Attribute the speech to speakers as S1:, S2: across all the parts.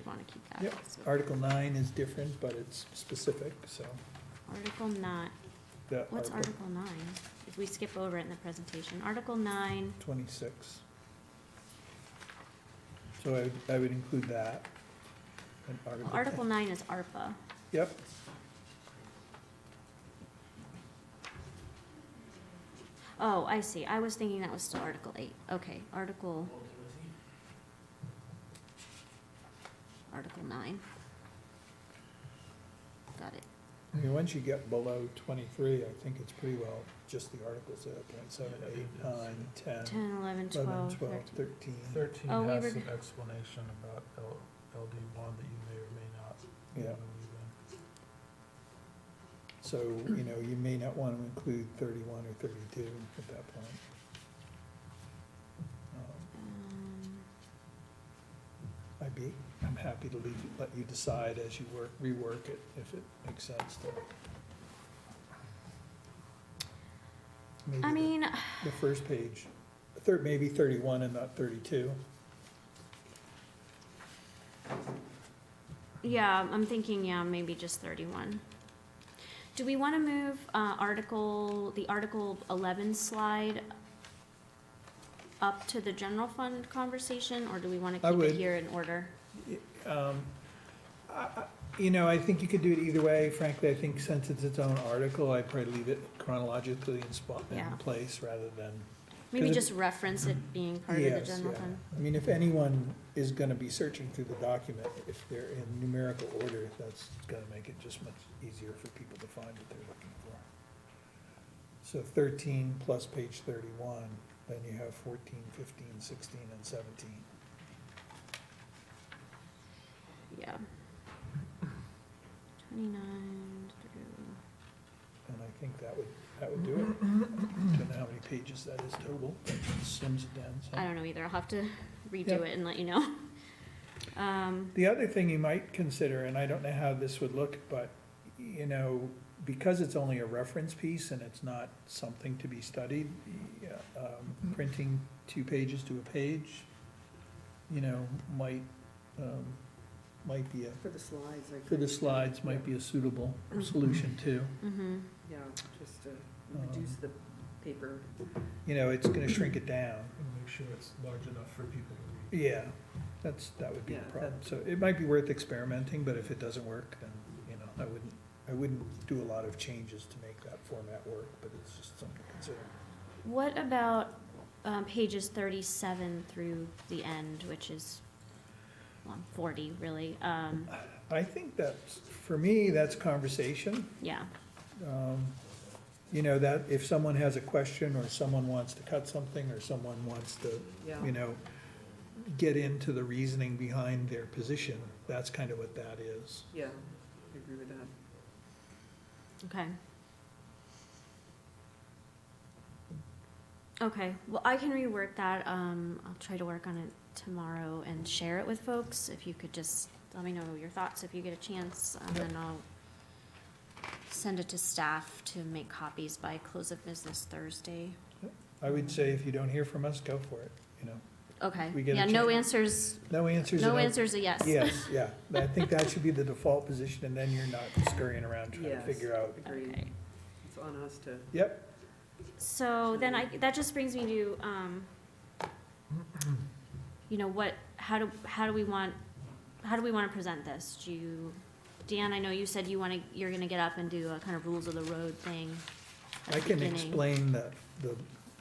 S1: want to keep that.
S2: Yep,
S1: So
S2: Article nine is different, but it's specific, so.
S1: Article nine,
S2: the
S1: what's Article nine? If we skip over it in the presentation, Article nine,
S2: Twenty-six. So I, would- I would include that. in
S1: well, Article nine is ARPA.
S2: Yep.
S1: Oh, I see, I was thinking that was still Article eight, okay, Article. Article nine. Got it,
S2: I mean, once you get below twenty-three, I think it's pretty well just the articles there, point seven, eight, nine, ten,
S1: ten, eleven,
S2: eleven,
S1: twelve,
S2: twelve,
S1: thirteen.
S2: thirteen.
S3: Thirteen
S1: Oh, we
S3: has
S1: were-
S3: some explanation about L, LD one that you may or may not.
S2: Yeah.
S3: believe in.
S2: So, you know, you may not want to include thirty-one or thirty-two at that point. Um,
S1: Um,
S2: I'd be, I'm happy to leave, let you decide as you work, rework it, if it makes sense to. Maybe
S1: um, I
S2: the-
S1: mean,
S2: The first page, thir maybe thirty-one and not thirty-two.
S1: Yeah, I'm thinking, yeah, maybe just thirty-one. Do we wanna move, uh, article, the article eleven slide up to the general fund conversation, or do we wanna
S2: I
S1: keep
S2: would.
S1: it here in order?
S2: Um, I, I, you know, I think you could do it either way, frankly, I think since it's its own article, I'd probably leave it chronologically in spot, in
S1: Yeah.
S2: place, rather than
S1: Maybe
S2: it-
S1: just reference it being part of the
S2: Yes,
S1: general
S2: yeah.
S1: fund?
S2: I mean, if anyone is gonna be searching through the document, if they're in numerical order, that's gonna make it just much easier for people to find what they're looking for. So thirteen plus page thirty-one, then you have 14, 15, 16, and seventeen.
S1: Yeah. Twenty-nine through,
S2: And I think that would, that would do it. I Don't know how many pages that is total, but it slims it down some.
S1: I don't know either, I'll have to
S2: Yeah.
S1: redo it and let you know. Um,
S2: The other thing you might consider, and I don't know how this would look, but, you know, because it's only a reference piece and it's not something to be studied, yeah, um, printing two pages to a page, you know, might, um, might be a,
S4: For the slides, I could.
S2: for the slides, might be a suitable solution too.
S1: mhm.
S4: Yeah, just to
S2: Um,
S4: reduce the paper.
S2: You know, it's gonna shrink it down.
S3: And make sure it's large enough for people to read.
S2: Yeah, that's, that would be the
S4: Yeah,
S2: problem. So it might be worth experimenting, but if it doesn't work, then, you know, I wouldn't, I wouldn't do a lot of changes to make that format work, but it's just something to consider.
S1: What about um, pages 37 through the end, which is well, 40, really? Um,
S2: I think that's, for me, that's conversation.
S1: yeah.
S2: Um, You know, that if someone has a question or someone wants to cut something or someone wants to,
S4: Yeah.
S2: you know, get into the reasoning behind their position, that's kind of what that is.
S4: Yeah, I agree with that.
S1: Okay. Okay. Well, I can rework that. Um, I'll try to work on it tomorrow and share it with folks. If you could just let me know your thoughts if you get a chance, and then I'll send it to staff to make copies by close of business Thursday.
S2: I would say if you don't hear from us, go for it, you know.
S1: Okay.
S2: We get a
S1: Yeah, no
S2: check.
S1: answers
S2: No answers.
S1: No
S2: and I-
S1: answer's a yes.
S2: Yes, yeah, I think that should be the default position, and then you're not scurrying around trying to
S4: Yes.
S2: figure out.
S4: Agreed.
S1: Okay.
S4: It's on us to,
S2: Yep,
S1: So then I, that just brings me to, um, you know, what, how do, how do we want, how do we wanna present this? Do you, Dan, I know you said you wanna, you're gonna get up and do a kind of rules of the road thing at
S2: I
S1: the
S2: can
S1: beginning.
S2: explain the, the,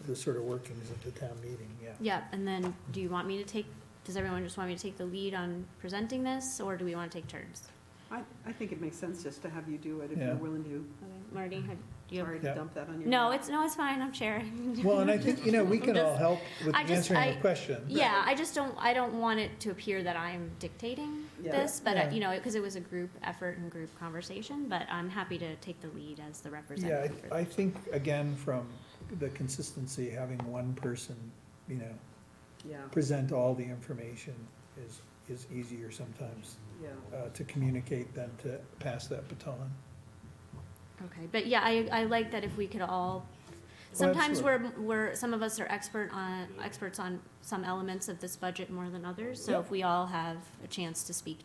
S2: the sort of workings of the town meeting, yeah.
S1: Yeah, and then do you want me to take, does everyone just want me to take the lead on presenting this, or do we wanna take turns?
S4: I, I think it makes sense just to have you do it if
S2: Yeah.
S4: you're willing to.
S1: Okay, Marty, have, do you have?
S4: Sorry to
S2: Yeah.
S4: dump that on your.
S1: No,
S4: lap.
S1: it's, no, it's fine, I'm sharing.
S2: Well, and I think, you know, we can all
S1: Just-
S2: help with
S1: I just-
S2: answering
S1: I-
S2: the question.
S1: Yeah, I just don't, I don't want it to appear that I'm dictating
S4: Yeah.
S1: this, but, uh,
S2: Yeah.
S1: you know, because it was a group effort and group conversation, but I'm happy to take the lead as the
S2: Yeah,
S1: representative.
S2: I,
S1: for
S2: I think, again, from the consistency, having one person, you know,
S4: Yeah,
S2: present all the information is, is easier sometimes
S4: yeah.
S2: uh, to communicate than to pass that baton.
S1: Okay, but yeah, I, I like that if we could all,
S2: Oh,
S1: sometimes we're, we're, some of us are expert on, experts on some elements of this budget more than others, so if we all have a chance to speak